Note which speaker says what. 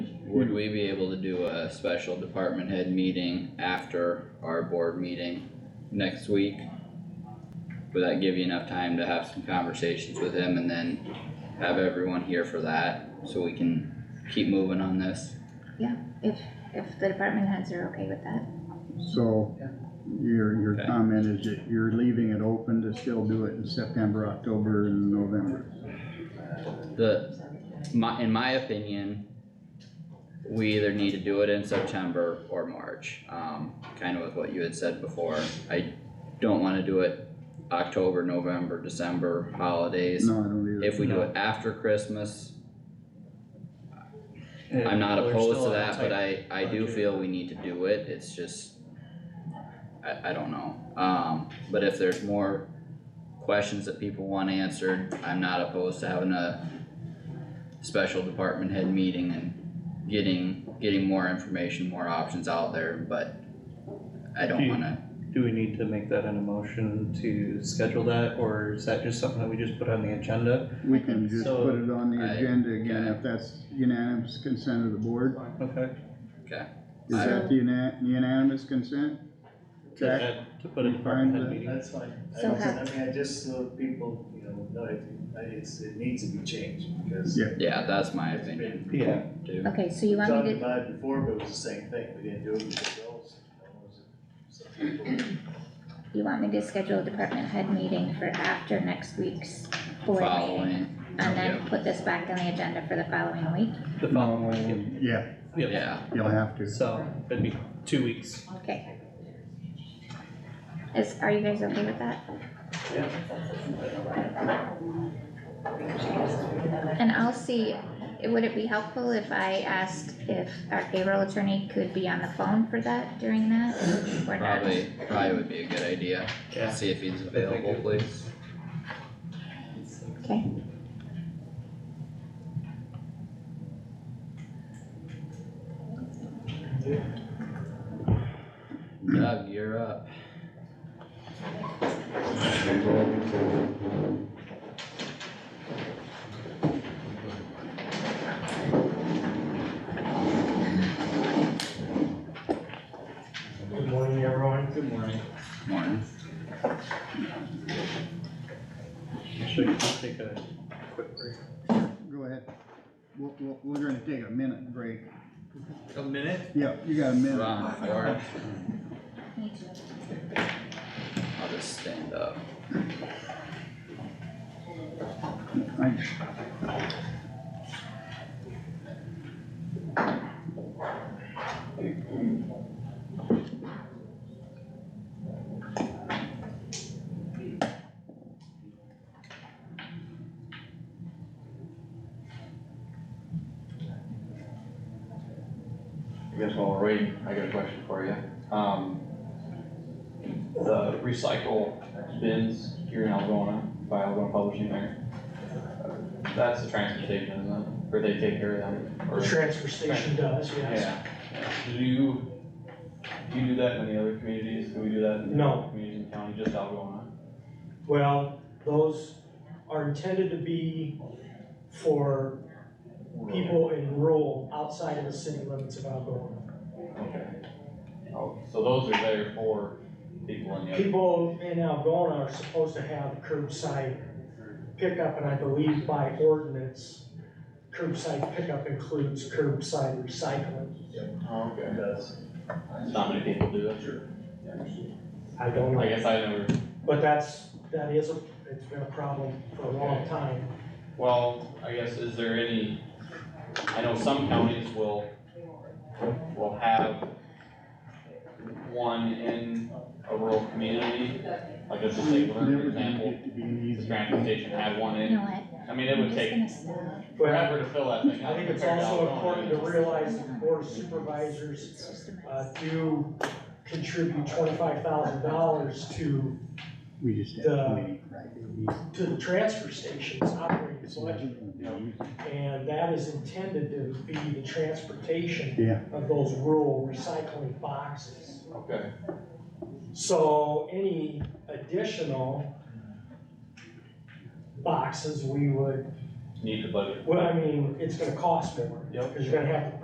Speaker 1: would we be able to do a special department head meeting after our board meeting next week? Would that give you enough time to have some conversations with him and then have everyone here for that, so we can keep moving on this?
Speaker 2: If, if the department heads are okay with that,
Speaker 3: So your, your
Speaker 1: Okay.
Speaker 3: comment is that you're leaving it open to still do it in September, October and November.
Speaker 1: The, my, in my opinion, we either need to do it in September or March, um, kind of with what you had said before. I don't wanna do it October, November, December, holidays.
Speaker 3: No, I don't either.
Speaker 1: If we do it after Christmas, I'm not
Speaker 4: We're
Speaker 1: opposed
Speaker 4: still
Speaker 1: to
Speaker 4: on a
Speaker 1: that, but
Speaker 4: tight-
Speaker 1: I, I do
Speaker 4: budget.
Speaker 1: feel we need to do it, it's just, I, I don't know, um, but if there's more questions that people want answered, I'm not opposed to having a special department head meeting and getting, getting more information, more options out there, but I don't
Speaker 4: Okay.
Speaker 1: wanna,
Speaker 4: Do we need to make that an emotion to schedule that, or is that just something that we just put on the agenda?
Speaker 3: We can just
Speaker 4: So-
Speaker 3: put it on the
Speaker 1: I-
Speaker 3: agenda again
Speaker 1: okay.
Speaker 3: if that's unanimous consent of the board.
Speaker 4: Okay.
Speaker 3: Is
Speaker 1: I-
Speaker 3: that the una- unanimous consent?
Speaker 4: To
Speaker 3: Jack?
Speaker 4: add- To put a
Speaker 3: You find
Speaker 4: department head
Speaker 3: that-
Speaker 4: meeting.
Speaker 5: That's fine. I,
Speaker 2: So how-
Speaker 5: I mean, I just so people, you know, know it, I- it's, it needs to be changed because.
Speaker 3: Yeah.
Speaker 1: yeah, that's my opinion
Speaker 4: Yeah,
Speaker 1: too.
Speaker 2: okay, so you
Speaker 5: We
Speaker 2: want
Speaker 5: talked
Speaker 2: me to,
Speaker 5: about it before, but it was the same thing. We didn't do it with the girls. you know, it was- Some people,
Speaker 2: you want me to schedule a department head meeting for after next week's board meeting?
Speaker 1: Following,
Speaker 2: And then put this back on the agenda for the following week?
Speaker 4: the following week,
Speaker 3: Yeah,
Speaker 4: yeah. Yep.
Speaker 1: yeah,
Speaker 3: you'll have to.
Speaker 4: So, it'd be two weeks.
Speaker 2: Okay. Is, are you guys okay with that? And I'll see, would it be helpful if I asked if our payroll attorney could be on the phone for that during that? or not?
Speaker 1: probably, probably would be a good idea,
Speaker 4: Yeah.
Speaker 1: see if he's
Speaker 4: I think
Speaker 1: available,
Speaker 4: it-
Speaker 1: please.
Speaker 2: Okay,
Speaker 1: Doug, you're up.
Speaker 6: Good morning, everyone. Good morning.
Speaker 1: Morning.
Speaker 4: Should we take a quick break?
Speaker 3: Go ahead. We're, we're, we're gonna take a minute break.
Speaker 6: A minute?
Speaker 3: Yeah, you got a minute.
Speaker 1: Ron, Warren. I'll just stand up.
Speaker 3: I-
Speaker 7: I guess while we're waiting, I got a question for you. Um, the recycle bins here in Algona, by Algona Publishing there. That's the transfer station, isn't it? Or they take care of them?
Speaker 6: The
Speaker 7: or-
Speaker 6: transfer station does, yes.
Speaker 7: Yeah. Do you, do you do that in any other communities? Do we do that in
Speaker 6: No.
Speaker 7: communities in county, just Algona?
Speaker 6: Well, those are intended to be for people in rural, outside of the city limits of Algonah.
Speaker 7: Okay. Oh, so those are there for people in the other.
Speaker 6: People in Algonah are supposed to have curbside pickup, and I believe by ordinance, curbside pickup includes curbside recycling.
Speaker 7: Oh, okay.
Speaker 5: because
Speaker 7: Not many people do that. Sure.
Speaker 6: I don't
Speaker 7: I
Speaker 6: know,
Speaker 7: guess I never
Speaker 6: but that's, that is, a it's been a problem for a long time.
Speaker 7: Well, I guess, is there any, I know some counties will, will have one in a rural community, like let's just say, for example, the transfer station had one
Speaker 2: you
Speaker 7: in,
Speaker 2: know what,
Speaker 7: I mean, it
Speaker 2: I'm
Speaker 7: would
Speaker 2: just
Speaker 7: take
Speaker 2: gonna stop.
Speaker 7: forever to fill that thing.
Speaker 6: I think it's also important to realize that the board of supervisors,
Speaker 2: It's just a
Speaker 6: uh,
Speaker 2: mess.
Speaker 6: do contribute twenty-five thousand dollars to,
Speaker 3: We just had
Speaker 6: The-
Speaker 3: a meeting Friday.
Speaker 6: to the transfer station's operating budget. And that is intended to be the transportation
Speaker 3: Yeah,
Speaker 6: of those rural recycling boxes.
Speaker 7: Okay,
Speaker 6: So any additional boxes we would,
Speaker 7: need the budget.
Speaker 6: well, I mean, it's gonna cost more.
Speaker 7: Yep.
Speaker 6: Cause you're gonna have to